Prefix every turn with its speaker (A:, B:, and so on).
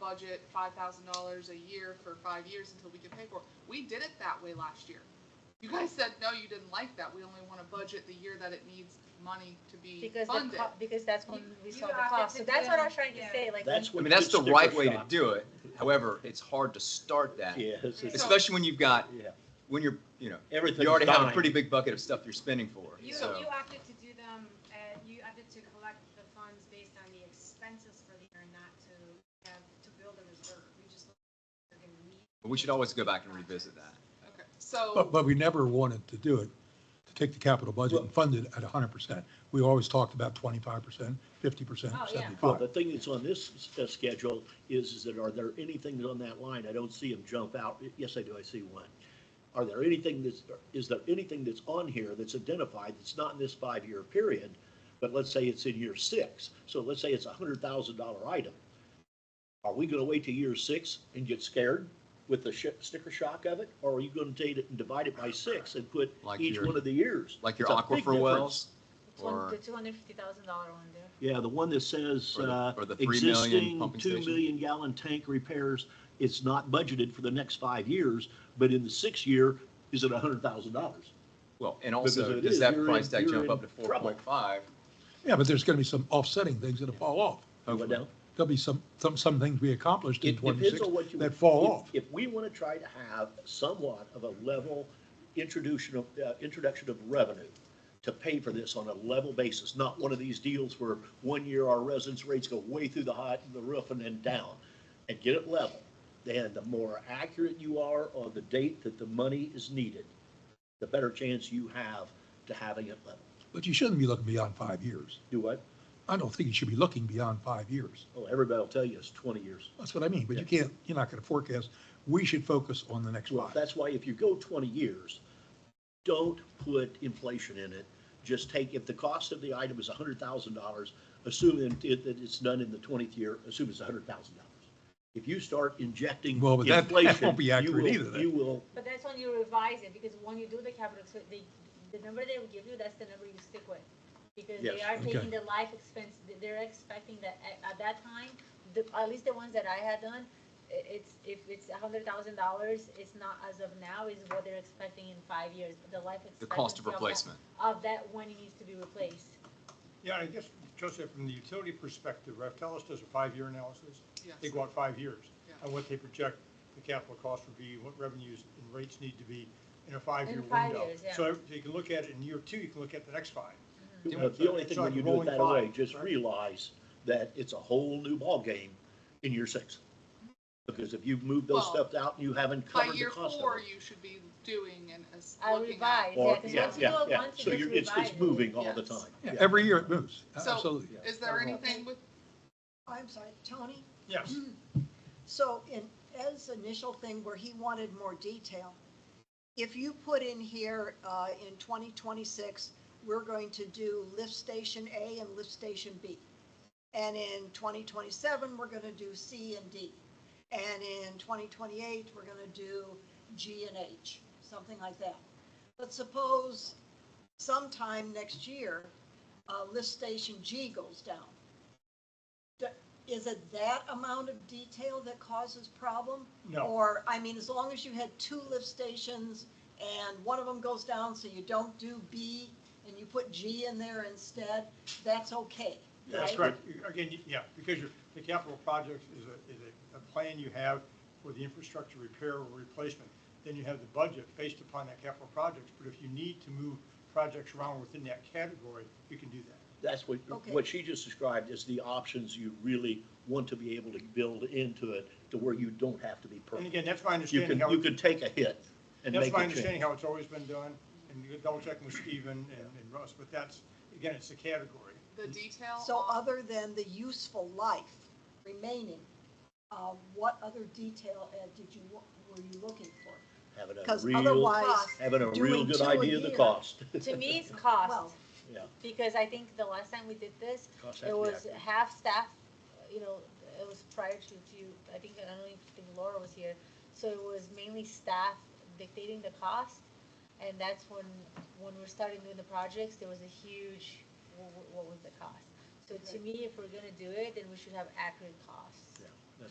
A: budget five thousand dollars a year for five years until we can pay for it. We did it that way last year. You guys said, no, you didn't like that. We only want to budget the year that it needs money to be
B: Because the
A: funded.
B: co- because that's when
C: You-
B: we
C: you
B: saw the
C: have to
B: cost, so
C: sit
B: that's what I was
C: down.
B: trying to
C: Yeah.
B: say, like.
D: That's
E: I
D: what.
E: mean, that's the
D: sticker
E: right way to
D: shock.
E: do it. However, it's hard to start that,
D: Yeah. it's- it's-
E: especially when you've got,
D: yeah.
E: when you're, you know,
D: Everything's
E: you already have a
D: dying.
E: pretty big bucket of stuff you're spending for.
C: You,
E: So
C: you opted to do them, uh, you opted to collect the funds based on the expenses for the year and not to have, to build a reserve. We just, we're gonna need.
E: but we should always go back and revisit that.
A: Okay, so.
F: But, but we never wanted to do it, to take the capital budget and fund it at hundred percent. We always talked about twenty-five percent, fifty percent,
C: Oh, yeah.
D: Well,
F: seventy-five.
D: the thing that's on this s- uh, schedule is, is that are there anything on that line? I don't see them jump out. Yes, I do. I see one. Are there anything that's, is there anything that's on here that's identified that's not in this five-year period? But let's say it's in year six. So let's say it's a hundred thousand dollar item. Are we gonna wait to year six and get scared with the sh- sticker shock of it? Or are you gonna take it and divide it by six and put
E: Like
D: each
E: your-
D: one of the years?
E: Like your
D: It's a big
E: aquifer
D: difference.
E: wells
B: It's one-
E: or-
B: The two hundred fifty thousand dollar one there.
D: Yeah, the one that says,
E: Or the-
D: uh,
E: or the 3 million
D: existing
E: pumping
D: two
E: station?
D: million gallon tank repairs, it's not budgeted for the next five years, but in the sixth year, is it a hundred thousand dollars?
E: Well, and
D: Because
E: also,
D: it
E: does
D: is,
E: that
D: you're in-
E: price tag
D: you're
E: jump
D: in
E: up to four
D: trouble.
E: point five?
F: Yeah, but there's gonna be some offsetting things that'll fall off.
E: Hopefully.
F: There'll be some, some, some things we accomplished in
D: It depends
F: twenty-six
D: on what you.
F: that fall
D: if-
F: off.
D: If we want to try to have somewhat of a level introduction of, uh, introduction of revenue to pay for this on a level basis, not one of these deals where one year our residence rates go way through the high, the roof and then down, and get it level, then the more accurate you are on the date that the money is needed, the better chance you have to having it level.
F: But you shouldn't be looking beyond five years.
D: Do what?
F: I don't think you should be looking beyond five years.
D: Oh, everybody will tell you it's twenty years.
F: That's what I mean, but you can't, you're not gonna forecast. We should focus on the next
D: Well,
F: five.
D: that's why if you go twenty years, don't put inflation in it. Just take, if the cost of the item is hundred thousand dollars, assume that it- that it's done in the twentieth year, assume it's hundred thousand dollars. If you start injecting
F: Well, but that- that won't
D: inflation,
F: be
D: you
F: accurate
D: will-
F: either then.
D: You will,
B: But that's when you revise it, because when you do the capital, so they, the number they will give you, that's the number you stick with. Because they
D: Yes.
B: are
F: Okay.
B: taking the life expense, th- they're expecting that at, at that time, the, at least the ones that I had done, i- it's, if it's a hundred thousand dollars, it's not as of now, is what they're expecting in five years, but the life expectancy.
E: The cost of
B: that-
E: replacement.
B: Of that when it needs to be replaced.
G: Yeah, I guess, Joseph, from the utility perspective, Raftellus does a five-year analysis.
A: Yes.
G: They go out five years
A: Yeah.
G: on what they project the capital cost would be, what revenues and rates need to be in a five-year
B: In
G: window.
B: five years, yeah.
G: So ev- you can look at it in year two, you can look at the next five.
D: you know, uh, the only
G: It's
D: thing
G: like
D: when
G: a
D: you do it
G: rolling
D: that way,
G: five,
D: just
G: right?
D: realize that it's a whole new ballgame in year six. Because if you've moved those
A: Well,
D: stuff out and you haven't
A: By
D: covered the
A: year
D: cost of
A: four,
D: it.
A: you should be doing and as-
B: I
A: looking at.
B: revise, yeah,
D: Or-
B: because
D: yeah,
B: once you
D: yeah,
B: do it
D: yeah.
B: once, you
D: So
B: just
D: you're, it's,
B: revise
D: it's
B: it.
D: moving all the
A: yes.
D: time.
F: Yeah,
D: Yeah.
F: Every year it moves,
A: So
F: absolutely.
A: is there anything with,
H: I'm sorry, Tony?
G: Yes,
B: Mm-hmm.
H: So in Ed's initial thing where he wanted more detail, if you put in here, uh, in twenty twenty-six, we're going to do lift station A and lift station B. And in twenty twenty-seven, we're gonna do C and D. And in twenty twenty-eight, we're gonna do G and H, something like that. But suppose sometime next year, uh, lift station G goes down. D- Is it that amount of detail that causes problem?
G: No.
H: Or, I mean, as long as you had two lift stations and one of them goes down, so you don't do B and you put G in there instead, that's okay,
G: that's
H: right?
G: correct. You- Again, you- yeah, because your, the capital project is a, is a, a plan you have for the infrastructure repair or replacement. Then you have the budget based upon that capital project, but if you need to move projects around within that category, you can do that.
D: That's what,
H: Okay.
D: what she just described is the options you really want to be able to build into it to where you don't have to be
G: And
D: perfect.
G: again, that's my
D: You
G: understanding
D: can,
G: how.
D: you can take a hit and
G: That's
D: make
G: my
D: a
G: understanding
D: change.
G: how it's always been done, and you double checking with Stephen and and Russ, but that's, again, it's a category.
A: the detail?
H: So
A: on-
H: other than the useful life remaining, uh, what other detail, Ed, did you, were you looking for?
D: Having a
H: Because
D: real,
H: otherwise,
D: having a real
H: doing
D: good
H: two a
D: idea of the
H: year-
D: cost.
B: To me, it's
H: well,
B: cost,
D: Yeah,
B: because I think the last time we did this,
D: cost
B: It
D: has to be
B: was
D: accurate.
B: half staff, you know, it was prior to, to, I think, I don't even think Laura was here. So it was mainly staff dictating the cost. And that's when, when we're starting doing the projects, there was a huge, what, what was the cost? So to me, if we're gonna do it, then we should have accurate costs.
D: Yeah.